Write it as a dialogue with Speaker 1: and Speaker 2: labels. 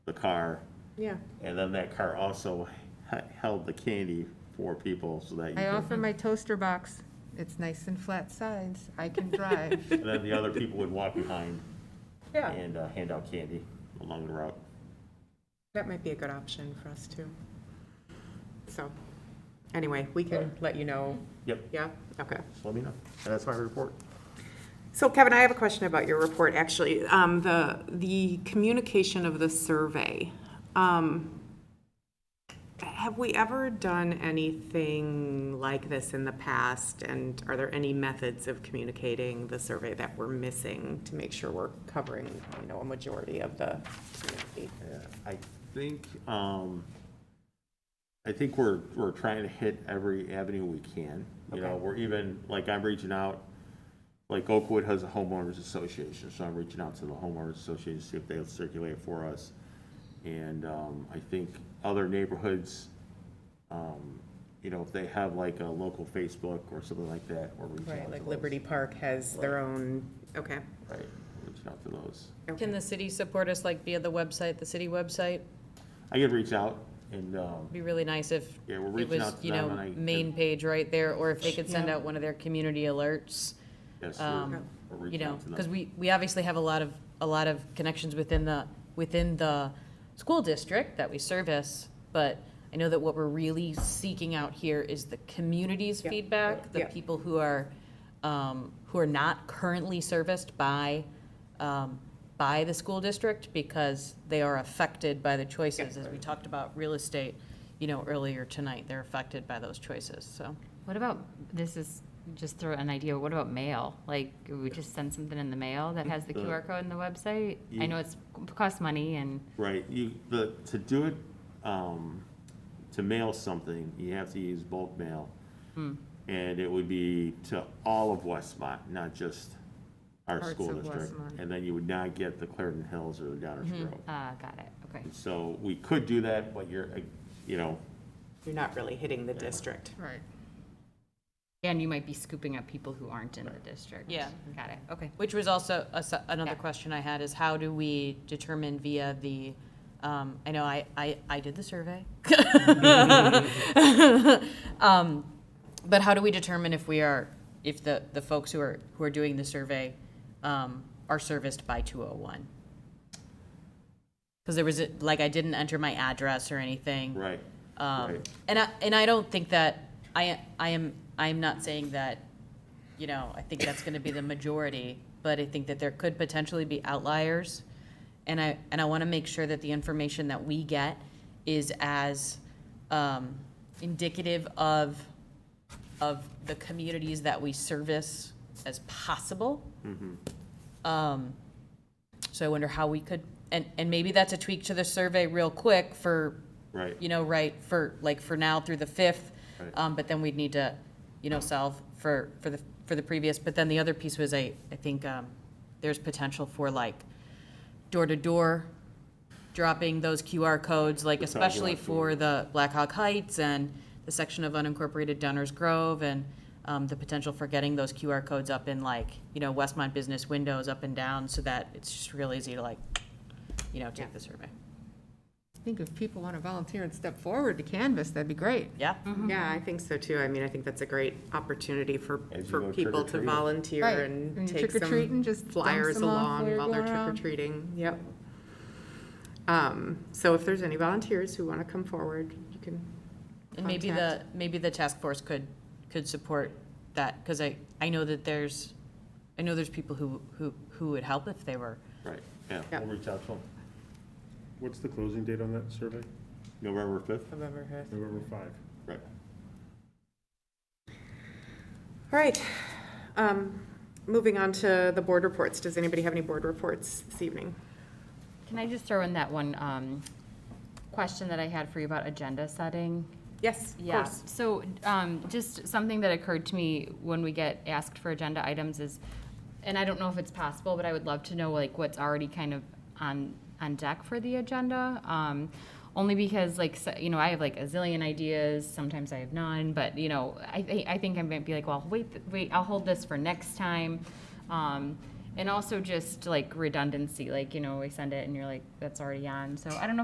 Speaker 1: the car,
Speaker 2: yeah.
Speaker 1: and then that car also he- held the candy for people so that you
Speaker 3: I offer
Speaker 1: could,
Speaker 3: my toaster box. It's nice and flat sides. I can drive.
Speaker 1: and then the other people would walk behind
Speaker 2: Yeah,
Speaker 1: and uh, hand out candy along the route.
Speaker 2: that might be a good option for us too. So, anyway, we can let you know.
Speaker 1: Yep,
Speaker 2: Yeah, okay.
Speaker 1: just let me know. And that's my report.
Speaker 2: So Kevin, I have a question about your report, actually. Um, the, the communication of the survey. Um, have we ever done anything like this in the past? And are there any methods of communicating the survey that we're missing to make sure we're covering, you know, a majority of the community?
Speaker 1: Yeah, I think, um, I think we're, we're trying to hit every avenue we can. You know,
Speaker 2: Okay.
Speaker 1: we're even, like, I'm reaching out, like Oakwood has a homeowners association, so I'm reaching out to the homeowners association, to see if they'll circulate it for us. And, um, I think other neighborhoods, um, you know, if they have like a local Facebook or something like that, we're reaching out to
Speaker 2: Right, like
Speaker 1: those.
Speaker 2: Liberty Park has their own, okay.
Speaker 1: Right, reaching out to those.
Speaker 4: Can the city support us, like via the website, the city website?
Speaker 1: I could reach out and, um,
Speaker 4: Be really nice if
Speaker 1: Yeah, we're
Speaker 4: it
Speaker 1: reaching
Speaker 4: was,
Speaker 1: out to
Speaker 4: you
Speaker 1: them
Speaker 4: know,
Speaker 1: and I-
Speaker 4: main page right there, or if they could send
Speaker 2: Yeah.
Speaker 4: out one of their community alerts.
Speaker 1: yes, we're
Speaker 4: Um,
Speaker 1: we're
Speaker 4: you
Speaker 1: reaching
Speaker 4: know,
Speaker 1: out to them.
Speaker 4: because we, we obviously have a lot of, a lot of connections within the, within the school district that we service, but I know that what we're really seeking out here is the community's
Speaker 2: Yeah.
Speaker 4: feedback, the
Speaker 2: Yeah.
Speaker 4: people who are, um, who are not currently serviced by, um, by the school district, because they are affected by the choices, as we talked about real estate, you know, earlier tonight, they're affected by those choices, so.
Speaker 5: What about, this is just throw an idea, what about mail? Like, we just send something in the mail that has the
Speaker 1: Uh,
Speaker 5: QR code in the website? I know it's, costs money and,
Speaker 1: Right, you, the, to do it, um, to mail something, you have to use bulk mail. And it would be to all of Westmont, not just our
Speaker 3: Parts
Speaker 1: school
Speaker 3: of
Speaker 1: district.
Speaker 3: Westmont.
Speaker 1: And then you would not get the Clarendon Hills or the Downers Grove.
Speaker 5: uh, got it, okay.
Speaker 1: So we could do that, but you're, uh, you know,
Speaker 2: You're not really hitting the district.
Speaker 3: Right.
Speaker 5: And you might be scooping up people who aren't in the district.
Speaker 4: Yeah.
Speaker 5: Got it, okay.
Speaker 4: Which was also a s- another
Speaker 5: Yeah.
Speaker 4: question I had is how do we determine via the, um, I know I, I, I did the survey. Um, But how do we determine if we are, if the, the folks who are, who are doing the survey um, are serviced by 201? Because there was, a- like, I didn't enter my address or anything.
Speaker 1: right,
Speaker 4: Um,
Speaker 1: Right.
Speaker 4: and I, and I don't think that, I, I am, I am not saying that, you know, I think that's gonna be the majority, but I think that there could potentially be outliers. And I, and I wanna make sure that the information that we get is as, um, indicative of, of the communities that we service as possible. Um, so I wonder how we could, and, and maybe that's a tweak to the survey real quick for
Speaker 1: right.
Speaker 4: you know, right, for, like, for now through the 5th.
Speaker 1: Right.
Speaker 4: Um, but then we'd need to, you know, solve for, for the, for the previous. But then the other piece was, I, I think, um, there's potential for like door-to-door dropping those QR codes, like
Speaker 1: We're talking
Speaker 4: especially
Speaker 1: about
Speaker 4: for the Black Hawk Heights and the section of unincorporated Downers Grove and, um, the potential for getting those QR codes up in like, you know, Westmont business windows up and down so that it's just real easy to like, you know, take the survey.
Speaker 3: I think if people want to volunteer and step forward to canvas, that'd be great.
Speaker 4: Yeah?
Speaker 2: Yeah, I think so too. I mean, I think that's a great opportunity for,
Speaker 1: As you
Speaker 2: for
Speaker 1: go trick or
Speaker 2: people to
Speaker 1: treating.
Speaker 2: volunteer
Speaker 3: Right,
Speaker 2: and
Speaker 3: and you
Speaker 2: take
Speaker 3: trick or treat and
Speaker 2: some
Speaker 3: just dump
Speaker 2: flyers
Speaker 3: some off while
Speaker 2: along
Speaker 3: you're
Speaker 2: while they're
Speaker 3: going
Speaker 2: trick or
Speaker 3: around.
Speaker 2: treating. Yep. Um, so if there's any volunteers who want to come forward, you can,
Speaker 4: And maybe the,
Speaker 2: contact.
Speaker 4: maybe the task force could, could support that, because I, I know that there's, I know there's people who, who, who would help if they were.
Speaker 1: Right, yeah,
Speaker 2: Yeah.
Speaker 1: we'll reach out to them.
Speaker 6: What's the closing date on that survey?
Speaker 1: November fifth,
Speaker 2: November fifth.
Speaker 6: November 5.
Speaker 1: right.
Speaker 2: All right. Um, moving on to the board reports. Does anybody have any board reports this evening?
Speaker 5: Can I just throw in that one, um, question that I had for you about agenda setting?
Speaker 2: Yes, of
Speaker 5: Yeah,
Speaker 2: course.
Speaker 5: so um, just something that occurred to me when we get asked for agenda items is, and I don't know if it's possible, but I would love to know like what's already kind of on, on deck for the agenda. um, Only because like, s- you know, I have like a zillion ideas, sometimes I have none, but you know, I, thi- I think I might be like, well, wait, wait, I'll hold this for next time. Um, And also just like redundancy, like, you know, we send it and you're like, that's already on. So I don't know